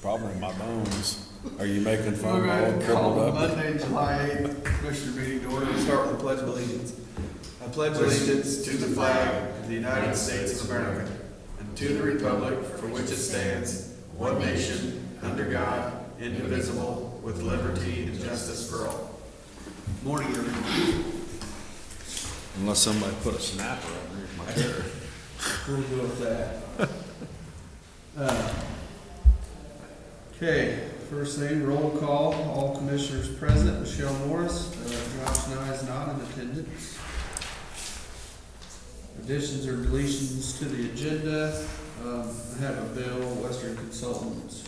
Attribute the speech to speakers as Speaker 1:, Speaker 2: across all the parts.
Speaker 1: problem in my bones. Are you making
Speaker 2: We'll
Speaker 1: fun of
Speaker 2: go ahead
Speaker 1: all
Speaker 2: and call
Speaker 1: crippled up?
Speaker 2: Monday, July eighth, Commissioner meeting to order, We'll start with the pledge of allegiance. I pledge allegiance to the flag of the United States of America and to the republic for which it stands, one nation, under God, indivisible, with liberty and justice for all. Morning, everyone.
Speaker 1: Unless somebody put a snapper underneath my chair.
Speaker 2: We'll go with that. Uh, Okay, first thing, roll call, all commissioners present, Michelle Morris, uh, Josh Nye is not in attendance. Additions or deletions to the agenda, um, I have a bill, Western Consultants,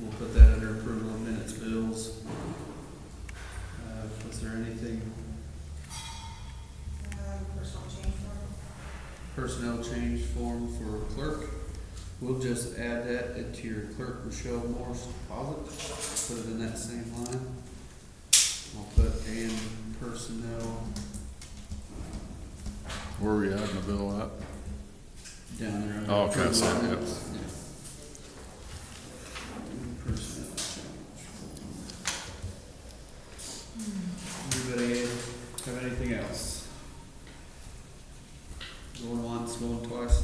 Speaker 2: we'll put that under approval of minutes bills. Uh, was there anything
Speaker 3: Personal change order.
Speaker 2: personnel change form for clerk. We'll just add that into your clerk, Michelle Morris deposit, put it in that same line. I'll put and personnel
Speaker 1: Where are we at in the bill at?
Speaker 2: down there. under
Speaker 1: Oh, okay, I see it, yep.
Speaker 2: personnel. Yeah. Personnel change form. Anybody have anything else? Going once, going twice.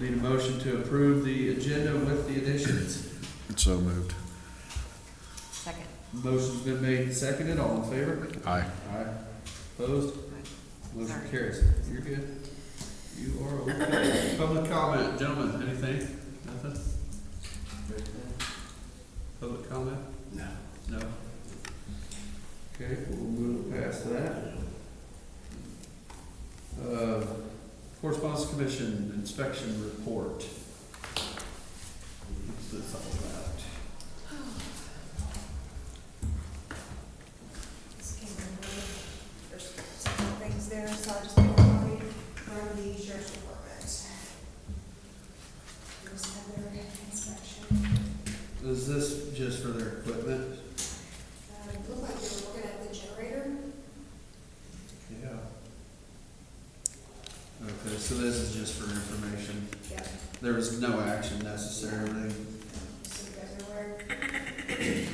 Speaker 2: Need a motion to approve the agenda with the additions.
Speaker 1: So moved.
Speaker 3: Second.
Speaker 2: Motion's been made and seconded, all in favor?
Speaker 1: Aye.
Speaker 2: Aye. Opposed? Motion
Speaker 3: Sorry.
Speaker 2: carries. You're good. You are okay. Public comment, gentlemen, anything? Nothing? Public comment? No. No? Okay, we'll move past that. Uh, Correspondence Commission Inspection Report. What's this all about?
Speaker 3: Just came in late. There's some things there, so I just want to read from the sheriff's department. Just had their inspection.
Speaker 2: Is this just for their equipment?
Speaker 3: Um, it looked like they were working at the generator.
Speaker 2: Yeah. Okay, so this is just for information.
Speaker 3: Yeah.
Speaker 2: There was no action necessarily.
Speaker 3: So you guys are aware.
Speaker 2: Okay.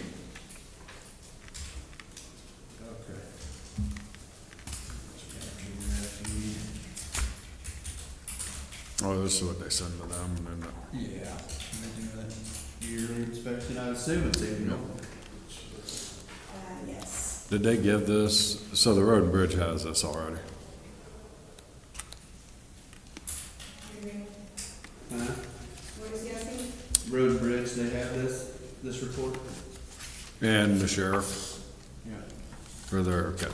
Speaker 1: Oh, this is what they send to them and then
Speaker 2: Yeah. They do that yearly inspection, I assume it's annual.
Speaker 3: Uh, yes.
Speaker 1: Did they give this, so the road and bridge has this already?
Speaker 3: You ready?
Speaker 2: Huh?
Speaker 3: What is he asking?
Speaker 2: Road and Bridge, they have this, this report?
Speaker 1: And the sheriff,
Speaker 2: Yeah.
Speaker 1: or their, okay,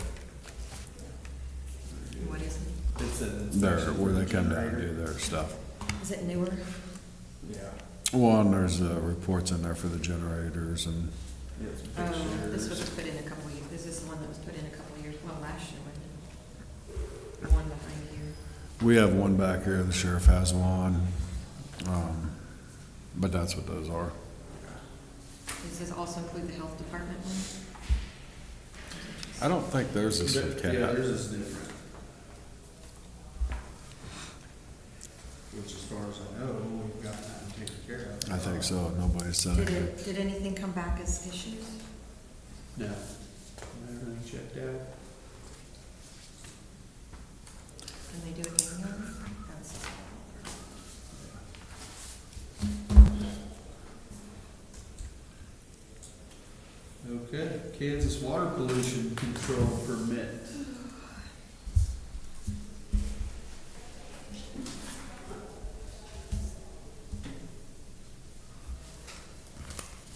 Speaker 4: What is it?
Speaker 2: It's an inspection.
Speaker 1: their,
Speaker 2: for
Speaker 1: where they
Speaker 2: the
Speaker 1: come down and
Speaker 2: generator.
Speaker 1: do their stuff.
Speaker 4: Is it newer?
Speaker 2: Yeah.
Speaker 1: Well, and there's, uh, reports in there for the generators and,
Speaker 2: It's
Speaker 4: Oh, this was
Speaker 2: pictures.
Speaker 4: put in a couple of years, this is the one that was put in a couple of years, well, last year, wasn't it? The one behind here.
Speaker 1: we have one back here, the sheriff has one. Um, But that's what those are.
Speaker 4: Does this also include the health department one?
Speaker 1: I don't think there's this with
Speaker 2: But, Yeah,
Speaker 1: cat.
Speaker 2: theirs is different. Which as far as I know, we've got that taken care of.
Speaker 1: I think so, nobody said
Speaker 4: Did
Speaker 1: it.
Speaker 4: it, did anything come back as issues?
Speaker 2: No. Everything checked out.
Speaker 4: Can they do it annually? That's-
Speaker 2: Okay, Kansas water pollution control permit.